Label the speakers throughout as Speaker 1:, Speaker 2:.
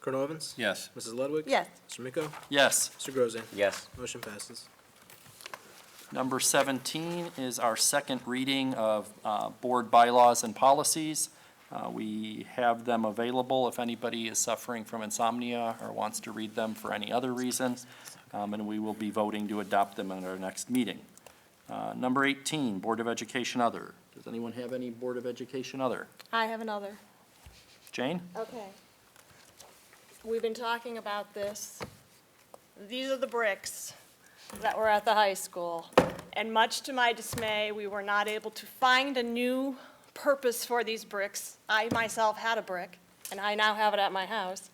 Speaker 1: Colonel Evans?
Speaker 2: Yes.
Speaker 1: Mrs. Ludwig?
Speaker 3: Yes.
Speaker 1: Mr. Miko?
Speaker 2: Yes.
Speaker 1: Mr. Grozen?
Speaker 4: Yes.
Speaker 1: Motion passes.
Speaker 2: Number 17 is our second reading of uh, board bylaws and policies. Uh, We have them available if anybody is suffering from insomnia or wants to read them for any other reason, um, and we will be voting to adopt them at our next meeting. Uh, Number 18, Board of Education Other. Does anyone have any Board of Education Other?
Speaker 3: I have another.
Speaker 2: Jane?
Speaker 3: Okay. We've been talking about this. These are the bricks that were at the high school. And much to my dismay, we were not able to find a new purpose for these bricks. I myself had a brick, and I now have it at my house.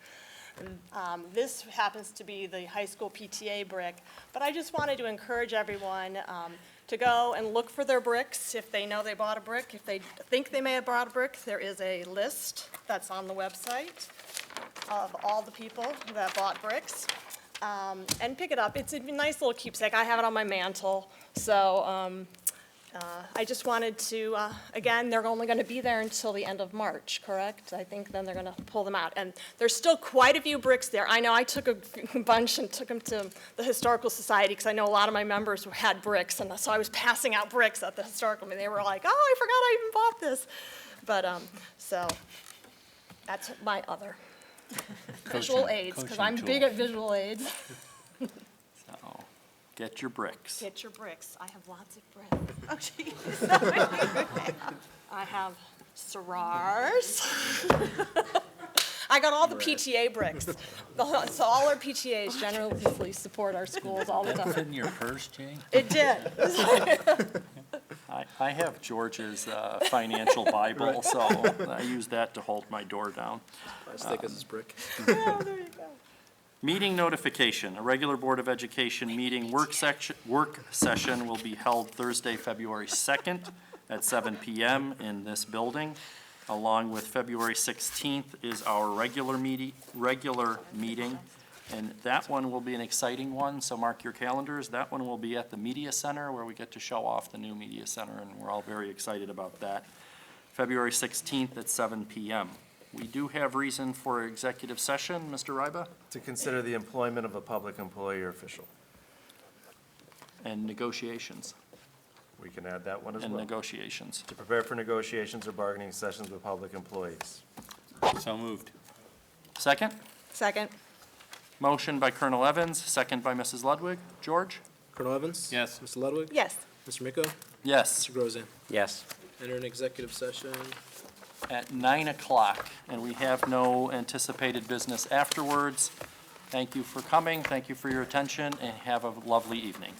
Speaker 3: Um, This happens to be the high school PTA brick, but I just wanted to encourage everyone um, to go and look for their bricks, if they know they bought a brick, if they think they may have bought a brick, there is a list that's on the website of all the people that bought bricks, um, and pick it up. It's a nice little keepsake, I have it on my mantle, so um, uh, I just wanted to, uh, again, they're only going to be there until the end of March, correct? I think then they're going to pull them out. And there's still quite a few bricks there. I know I took a bunch and took them to the Historical Society because I know a lot of my members had bricks. And so I was passing out bricks at the Historical, and they were like, oh, I forgot I even bought this. But, um, so, that's my other. Visual aids, because I'm big at visual aids.
Speaker 2: So, Get your bricks.
Speaker 3: Get your bricks. I have lots of bricks. Oh, jeez. I have Sarars. I got all the PTA bricks. The whole- So all our PTAs generally support our schools all the time. Oh,
Speaker 5: in your purse, Jane?
Speaker 3: It did.
Speaker 2: I, I have George's uh, financial Bible, so I use that to hold my door down.
Speaker 1: As thick as this brick.
Speaker 3: Oh, there you go.
Speaker 2: Meeting notification, a regular Board of Education meeting work section, work session will be held Thursday, February 2nd at 7 PM in this building. Along with February 16th is our regular meeting, regular meeting. And that one will be an exciting one, so mark your calendars. That one will be at the Media Center where we get to show off the new Media Center, and we're all very excited about that. February 16th at 7 PM. We do have reason for executive session, Mr. Ryba?
Speaker 6: To consider the employment of a public employee or official.
Speaker 2: and negotiations,
Speaker 6: We can add that one as
Speaker 2: and
Speaker 6: well.
Speaker 2: negotiations.
Speaker 6: To prepare for negotiations or bargaining sessions with public employees.
Speaker 5: So moved.
Speaker 2: Second,
Speaker 3: Second.
Speaker 2: motion by Colonel Evans, second by Mrs. Ludwig. George?
Speaker 1: Colonel Evans?
Speaker 5: Yes.
Speaker 1: Mr. Ludwig?
Speaker 3: Yes.
Speaker 1: Mr. Miko?
Speaker 2: Yes,
Speaker 1: Mr. Grozen?
Speaker 4: Yes.
Speaker 1: Enter an executive session.
Speaker 2: at nine o'clock, and we have no anticipated business afterwards. Thank you for coming, thank you for your attention, and have a lovely evening.